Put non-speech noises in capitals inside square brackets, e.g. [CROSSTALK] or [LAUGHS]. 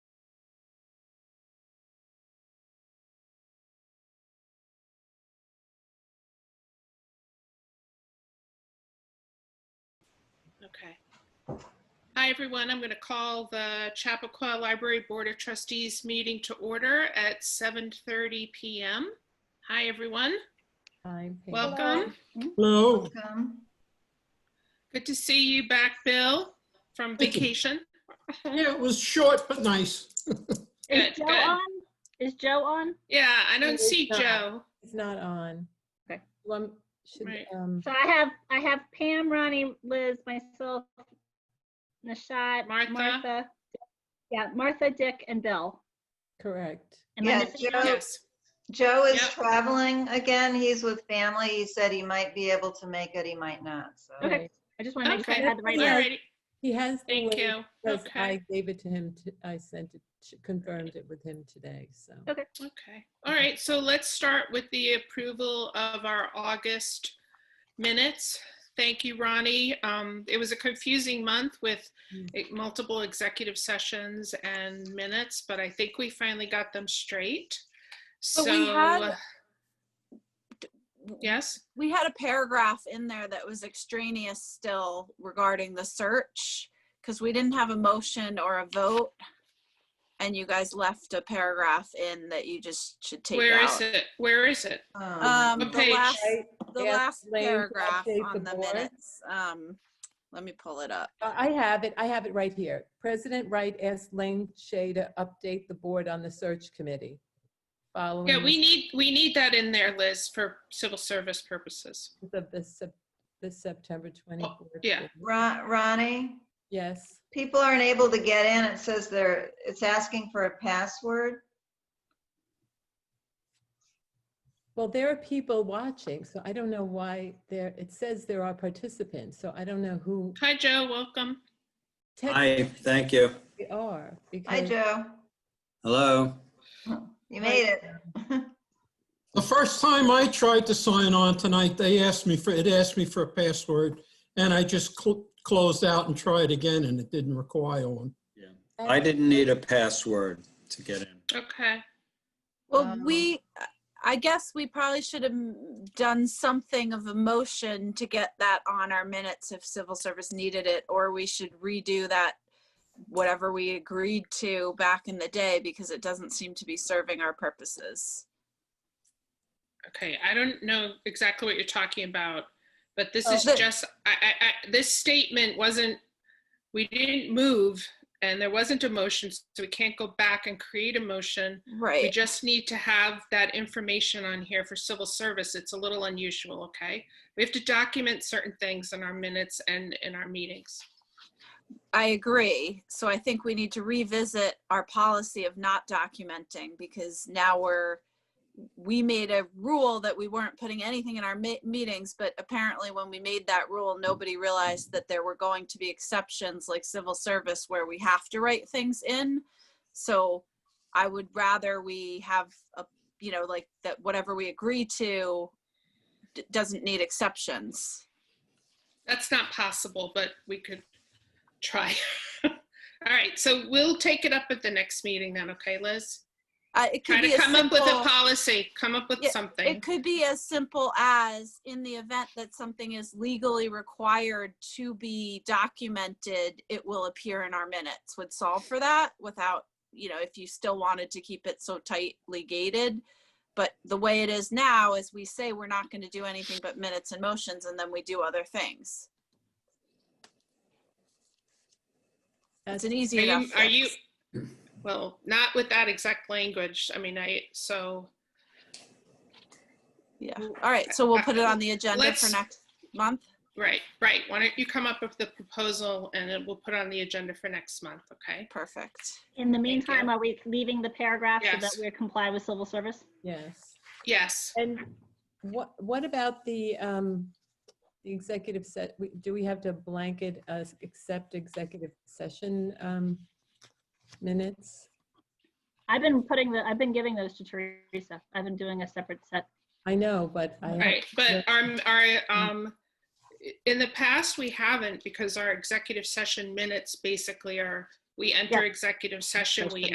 Okay. Hi, everyone. I'm going to call the Chappaqua Library Board of Trustees meeting to order at 7:30 PM. Hi, everyone. Hi, Pam. Welcome. Hello, Um, Good to see you back, Bill, from Thank you. vacation. yeah, it was short but nice. Good, Is Joe good. on? Is Joe on? Yeah, I don't It's see not. Joe. It's not on. Okay. One, should, Right. um, So I have, I have Pam, Ronnie, Liz, myself, Nishad, Martha. Martha. Yeah, Martha, Dick, and Bill. correct. Am I Yeah, missing Joe. anyone? Yes. Joe is Yep. traveling again. He's with family. He said he might be able to make it, he might not, so. Okay. Right. I just want to make sure I Okay. had the right. Yeah. one. Alrighty. He has. the Thank link you. because Okay. I gave it to him, t- I sent it, sh- confirmed it with him today, so. Okay. Okay, all right, so let's start with the approval of our August minutes. Thank you, Ronnie. Um, It was a confusing month with Mm. eh, multiple executive sessions and minutes, but I think we finally got them straight. But we So, uh, had- yes, we had a paragraph in there that was extraneous still regarding the search because we didn't have a motion or a vote and you guys left a paragraph in that you just should take where is out. it? Where is it? Um, What the page? last, Right, the Yes, last Lane, to update paragraph the on the board. minutes. Um, let me pull it up. I I have it, I have it right here. President Wright asked Lane Shay to update the board on the search committee. Following Yeah, we the need, we need that in there, Liz, for civil service purposes. results of the, Sep- the September 24th. Oh, yeah. meeting. Ron- Ronnie, Yes, people aren't able to get in. It says they're, it's asking for a password. well, there are people watching, so I don't know why there, it says there are participants, so I don't know who. Hi, Joe, welcome. Hi, thank you. We are. Hi, because Joe. Hello. You made it. [LAUGHS] The first time I tried to sign on tonight, they asked me for, it asked me for a password, and I just cl- closed out and tried again, and it didn't require one. I didn't need a password to get in. Okay, Well, Um, we, I guess we probably should have done something of a motion to get that on our minutes if civil service needed it, or we should redo that, whatever we agreed to back in the day, because it doesn't seem to be serving our purposes. Okay, I don't know exactly what you're talking about, but this Oh, is the- just, I, I, I, this statement wasn't, we didn't move and there wasn't a motion, so we can't go back and create a motion. We Right. just need to have that information on here for civil service. It's a little unusual, okay? We have to document certain things in our minutes and in our meetings. I agree. So I think we need to revisit our policy of not documenting because now we're, we made a rule that we weren't putting anything in our mi- meetings, but apparently when we made that rule, nobody realized that there were going to be exceptions like civil service where we have to write things in. So I would rather we have a, you know, like that whatever we agree to d- doesn't need exceptions. That's not possible, but we could try. [LAUGHS] All right, so we'll take it up at the next meeting then, okay, Liz? Uh, it could Try be to a come up with a simple- policy, come up with Yeah, something. It could be as simple as in the event that something is legally required to be documented, it will appear in our minutes would solve for that without, you know, if you still wanted to keep it so tightly gated. But the way it is now is we say we're not going to do anything but minutes and motions and then we do other things. that's- It's an easy Are enough. you, are you, fix. well, not with that exact language. I mean, I, so Yeah. All right. So we'll put it on the agenda for Let's- next month. Right, right. Why don't you come up with the proposal and then we'll put on the agenda for next month, okay? Perfect. In the you. meantime, are we leaving the paragraph so that Yes. we comply with civil service? Yes. Yes. And what, what about the, um, the executive set, we- do we have to blanket us, accept executive session, um, minutes? I've been putting the, I've been giving those to Teresa. I've been doing a separate set. I know, but I. have- Right, but our, our, um, in the past, we haven't because our executive session minutes basically are, we enter executive session, we